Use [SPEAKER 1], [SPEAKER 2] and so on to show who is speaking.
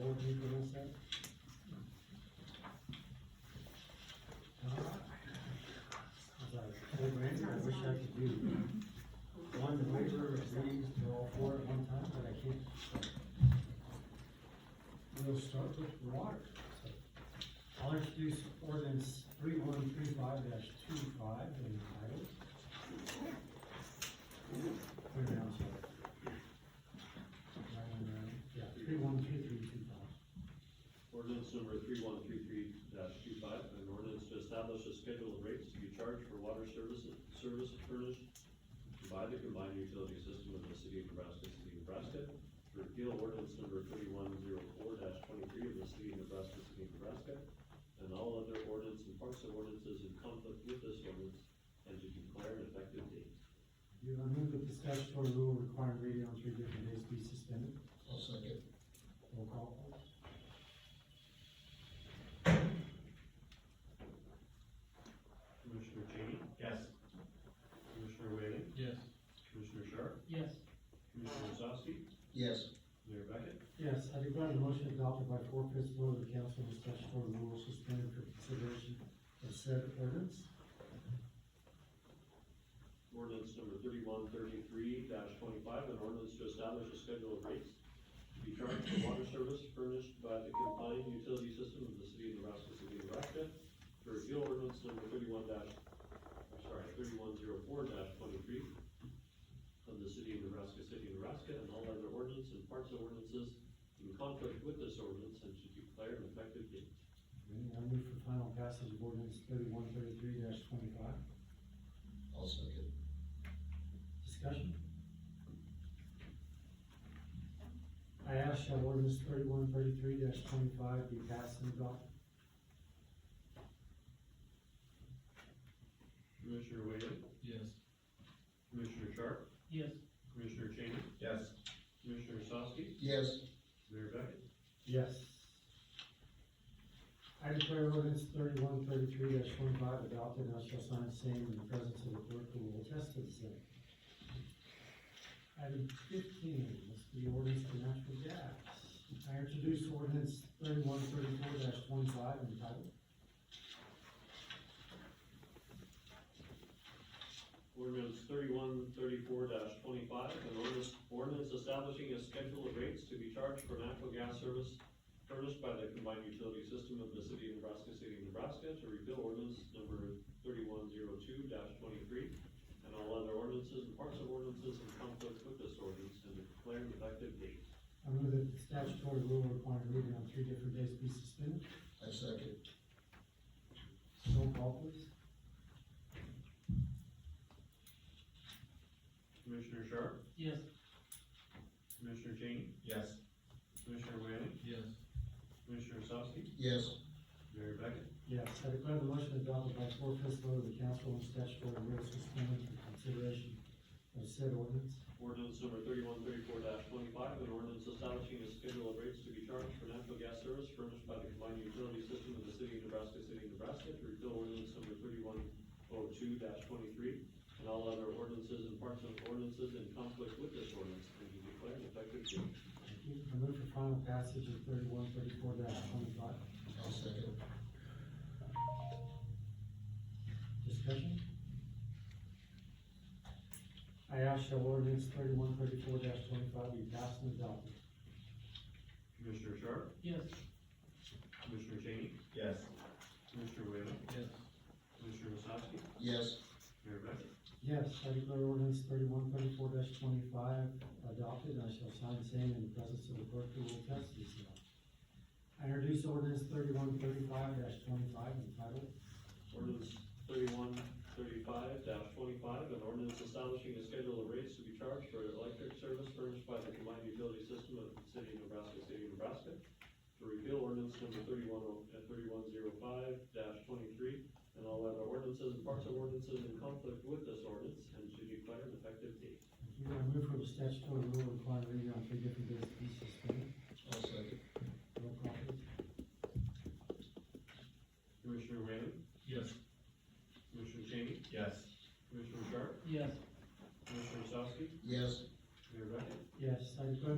[SPEAKER 1] I'll give you this one. I was like, "Hey, Randy, I wish I could do one waiver of these to all four at one time, but I can't. We'll start with water. So, I'll introduce ordinance three one three five dash two five in title. Put it down, so. Right on there. Yeah, three one three three two five.
[SPEAKER 2] Ordinance number three one three three dash two five, an ordinance to establish a schedule of rates to be charged for water services, service furnished by the combined utility system of the city of Nebraska, city of Nebraska. to Repeal ordinance number thirty-one zero four dash twenty-three of the city of Nebraska, city of Nebraska. And all other ordinance and parts of ordinances in conflict with this ordinance and to declare an effective date.
[SPEAKER 1] You I move that the statutory rule requiring reading on three different days be suspended.
[SPEAKER 3] I'll second.
[SPEAKER 1] Roll call, please.
[SPEAKER 2] Commissioner Cheney? Yes. Commissioner Whalen?
[SPEAKER 3] Yes.
[SPEAKER 2] Commissioner Sharp?
[SPEAKER 4] yes,
[SPEAKER 2] Commissioner Osowski?
[SPEAKER 3] Yes.
[SPEAKER 2] Mayor Beckett?
[SPEAKER 1] Yes, I declare the motion adopted by four fifths vote of the council on the statutory rule suspended for consideration of said ordinance.
[SPEAKER 2] Ordinance number thirty-one thirty-three twenty-five, an ordinance to establish a schedule of rates to be charged for water service furnished by the combined utility system of the city of Nebraska, city of Nebraska. To repeal ordinance number thirty-one dash, I'm sorry, thirty-one zero four twenty-three of the city of Nebraska, city of Nebraska, and all other ordinance and parts of ordinances in conflict with this ordinance and to declare an effective date.
[SPEAKER 1] Ready, I move for final passage of ordinance thirty-one thirty-three twenty-five.
[SPEAKER 3] I'll second.
[SPEAKER 1] Discussion? I ask shall ordinance thirty-one thirty-three twenty-five be passed and adopted?
[SPEAKER 2] Commissioner Whalen?
[SPEAKER 3] Yes.
[SPEAKER 2] Commissioner Sharp?
[SPEAKER 4] yes,
[SPEAKER 2] Commissioner Cheney?
[SPEAKER 3] Yes.
[SPEAKER 2] Commissioner Osowski?
[SPEAKER 3] Yes.
[SPEAKER 2] Mayor Beckett?
[SPEAKER 1] Yes. I declare ordinance thirty-one thirty-three twenty-five adopted, and I shall sign same in the presence of the clerk who will attest to the same. Item fifteen, this is the ordinance for natural gas. I introduce ordinance thirty-one thirty-four twenty-five in title.
[SPEAKER 2] Ordinance thirty-one thirty-four twenty-five, an ordinance, ordinance establishing a schedule of rates to be charged for natural gas service furnished by the combined utility system of the city of Nebraska, city of Nebraska, to repeal ordinance number thirty-one zero two twenty-three, and all other ordinances and parts of ordinances in conflict with this ordinance, and declare an effective date.
[SPEAKER 1] I move that the statutory rule requiring reading on three different days be suspended.
[SPEAKER 3] I second.
[SPEAKER 1] Roll call please.
[SPEAKER 2] Commissioner Sharp?
[SPEAKER 4] yes,
[SPEAKER 2] Commissioner Cheney?
[SPEAKER 3] Yes.
[SPEAKER 2] Commissioner Whalen?
[SPEAKER 3] Yes.
[SPEAKER 2] Commissioner Osowski?
[SPEAKER 3] Yes.
[SPEAKER 2] Mayor Beckett?
[SPEAKER 1] Yes, I declare the motion adopted by four fifths vote of the council on statutory rules suspended for consideration of said ordinance.
[SPEAKER 2] Ordinance number thirty-one thirty-four twenty-five, an ordinance establishing a schedule of rates to be charged for natural gas service furnished by the combined utility system of the city of Nebraska, city of Nebraska, to repeal ordinance number thirty-one oh two twenty-three, and all other ordinances and parts of ordinances in conflict with this ordinance, and to declare an effective date.
[SPEAKER 1] Thank you. I move for final passage of thirty-one thirty-four twenty-five.
[SPEAKER 3] I'll second.
[SPEAKER 1] Discussion? I ask shall ordinance thirty-one thirty-four twenty-five be passed and adopted?
[SPEAKER 2] Commissioner Sharp?
[SPEAKER 4] yes,
[SPEAKER 2] Commissioner Cheney?
[SPEAKER 3] Yes.
[SPEAKER 2] Commissioner Whalen?
[SPEAKER 3] Yes.
[SPEAKER 2] Commissioner Osowski?
[SPEAKER 3] Yes.
[SPEAKER 2] Mayor Beckett?
[SPEAKER 1] Yes, I declare ordinance thirty-one thirty-four twenty-five adopted, I shall sign same in the presence of the clerk who will attest to this law. I introduce ordinance thirty-one thirty-five twenty-five entitled,
[SPEAKER 2] Ordinance thirty-one thirty-five twenty-five, an ordinance establishing a schedule of rates to be charged for electric service furnished by the combined utility system of the city of Nebraska, city of Nebraska. To repeal ordinance number thirty-one oh, uh, thirty-one zero five twenty-three, and all other ordinances and parts of ordinances in conflict with this ordinance, and to declare an effective date.
[SPEAKER 1] Thank you. I move for the statutory rule requiring reading on